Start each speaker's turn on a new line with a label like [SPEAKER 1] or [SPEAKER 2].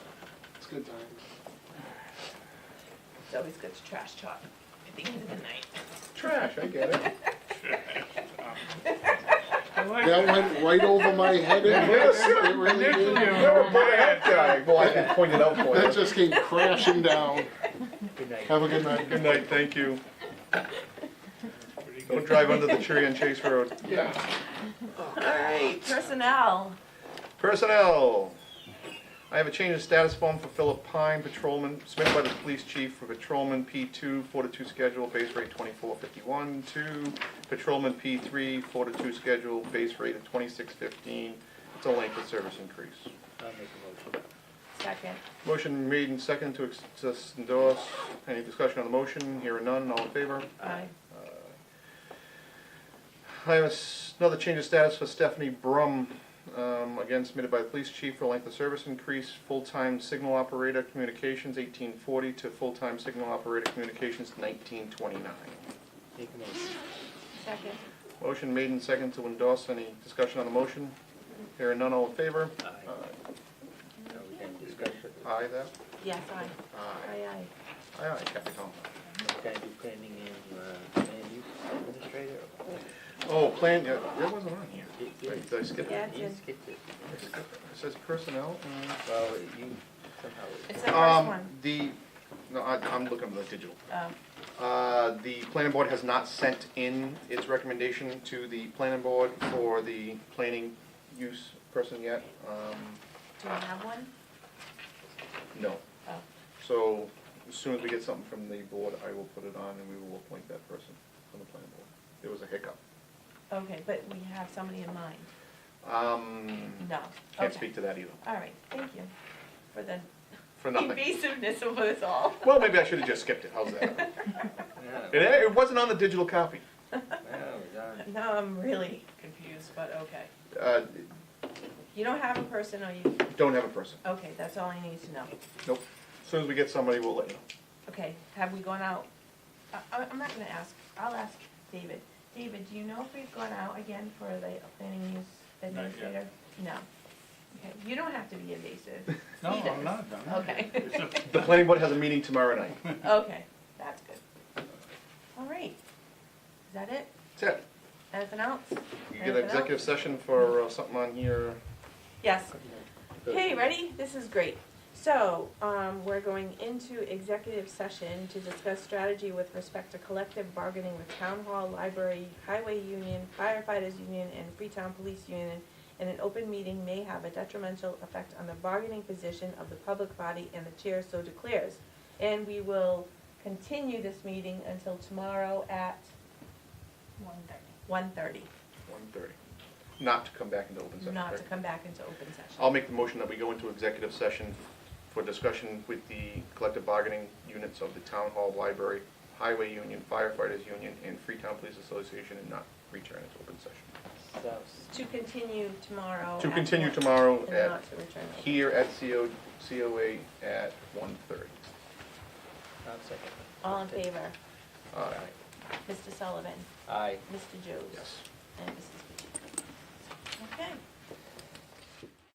[SPEAKER 1] good times.
[SPEAKER 2] It's always good to trash talk at the end of the night.
[SPEAKER 1] Trash, I get it.
[SPEAKER 3] I like
[SPEAKER 1] That
[SPEAKER 3] that.
[SPEAKER 1] went right over my head. It it really did.
[SPEAKER 4] You're a big head guy. Well, I can point it out for
[SPEAKER 1] That
[SPEAKER 4] you.
[SPEAKER 1] just came crashing down.
[SPEAKER 4] Good night.
[SPEAKER 1] Have a good night.
[SPEAKER 5] Good night, thank you. Don't drive under the tree on Chase Road.
[SPEAKER 1] Yeah.
[SPEAKER 2] All right, personnel.
[SPEAKER 5] Personnel. I have a change of status form for Philip Pine, patrolman, submitted by the police chief for patrolman P two, four to two schedule, base rate twenty-four fifty-one, two. Patrolman P three, four to two schedule, base rate of twenty-six fifteen. It's a length of service increase.
[SPEAKER 4] I'll make a motion.
[SPEAKER 2] Second.
[SPEAKER 5] Motion made and second to ex- to endorse. Any discussion on the motion? Here or none, all in favor?
[SPEAKER 2] Aye.
[SPEAKER 5] I have a s- another change of status for Stephanie Brum, um, again submitted by the police chief for length of service increase, full-time signal operator communications eighteen forty to full-time signal operator communications nineteen twenty-nine.
[SPEAKER 4] Make a motion.
[SPEAKER 2] Second.
[SPEAKER 5] Motion made and second to endorse. Any discussion on the motion? Here none, all in favor?
[SPEAKER 4] Aye. Now we can discuss it.
[SPEAKER 5] Aye that?
[SPEAKER 2] Yes, aye.
[SPEAKER 5] Aye.
[SPEAKER 2] Aye, aye.
[SPEAKER 5] Aye, aye, Captain.
[SPEAKER 4] Can I do planning and, uh, land use administrator?
[SPEAKER 5] Oh, plan, yeah, that wasn't on here.
[SPEAKER 4] You- you-
[SPEAKER 5] Wait, did I skip
[SPEAKER 2] Yeah.
[SPEAKER 5] it?
[SPEAKER 2] That's
[SPEAKER 4] You
[SPEAKER 2] it.
[SPEAKER 4] skipped it.
[SPEAKER 5] It says personnel. uh,
[SPEAKER 4] Well, you somehow.
[SPEAKER 2] It's the first
[SPEAKER 5] Um,
[SPEAKER 2] one.
[SPEAKER 5] the, no, I, I'm looking at the digital.
[SPEAKER 2] Um,
[SPEAKER 5] Uh, The planning board has not sent in its recommendation to the planning board for the planning use person yet. Um,
[SPEAKER 2] Do I have one?
[SPEAKER 5] No.
[SPEAKER 2] Oh.
[SPEAKER 5] So as soon as we get something from the board, I will put it on and we will appoint that person from the planning board. There was a hiccup.
[SPEAKER 2] Okay, but we have somebody in mind.
[SPEAKER 5] Um,
[SPEAKER 2] No.
[SPEAKER 5] Can't
[SPEAKER 2] Okay.
[SPEAKER 5] speak to that either,
[SPEAKER 2] All right, thank you for the
[SPEAKER 5] for nothing.
[SPEAKER 2] invasiveness of us all.
[SPEAKER 5] Well, maybe I should have just skipped it, how's that?
[SPEAKER 4] No,
[SPEAKER 5] It, it wasn't on the digital copy.
[SPEAKER 4] no, it's on-
[SPEAKER 2] Now I'm really confused, but okay.
[SPEAKER 5] Uh,
[SPEAKER 2] You don't have a person, or you,
[SPEAKER 5] Don't have a person,
[SPEAKER 2] okay, that's all I need to know.
[SPEAKER 5] nope. As Soon as we get somebody, we'll let you know.
[SPEAKER 2] Okay, have we gone out? I, I- I'm not gonna ask, I'll ask David. David, do you know if we've gone out again for the planning use
[SPEAKER 3] Not yet.
[SPEAKER 2] administrator? No. Okay, you don't have to be invasive.
[SPEAKER 3] No,
[SPEAKER 2] He
[SPEAKER 3] I'm
[SPEAKER 2] does.
[SPEAKER 3] not done.
[SPEAKER 2] Okay,
[SPEAKER 3] It's a-
[SPEAKER 5] The planning board has a meeting tomorrow night.
[SPEAKER 2] okay, that's good. All right, is that it?
[SPEAKER 5] That's it.
[SPEAKER 2] Anything else?
[SPEAKER 5] You get an executive session for uh, something on here.
[SPEAKER 2] Yes.
[SPEAKER 4] Good.
[SPEAKER 2] Hey, ready? This is great. So, um, we're going into executive session to discuss strategy with respect to collective bargaining with town hall, library, highway union, firefighters union, and Freetown Police Union. And an open meeting may have a detrimental effect on the bargaining position of the public body and the chair so declares. And we will continue this meeting until tomorrow at
[SPEAKER 6] One thirty.
[SPEAKER 2] one thirty,
[SPEAKER 5] One thirty. Not to come back into open session.
[SPEAKER 2] not to
[SPEAKER 5] correct?
[SPEAKER 2] come back into open session.
[SPEAKER 5] I'll make the motion that we go into executive session for discussion with the collective bargaining units of the town hall, library, highway union, firefighters union, and Freetown Police Association, and not return into open session.
[SPEAKER 4] So,
[SPEAKER 2] To continue tomorrow.
[SPEAKER 5] To
[SPEAKER 2] Oh, at
[SPEAKER 5] continue
[SPEAKER 2] one-
[SPEAKER 5] tomorrow
[SPEAKER 2] And
[SPEAKER 5] at,
[SPEAKER 2] not to return.
[SPEAKER 5] here at CO, COA at one thirty.
[SPEAKER 4] I'll second.
[SPEAKER 2] All in favor?
[SPEAKER 5] Uh,
[SPEAKER 2] Mr. Sullivan,
[SPEAKER 4] Aye.
[SPEAKER 2] Mr. Joes?
[SPEAKER 5] yes.
[SPEAKER 2] And Mrs. Pacheco. Okay.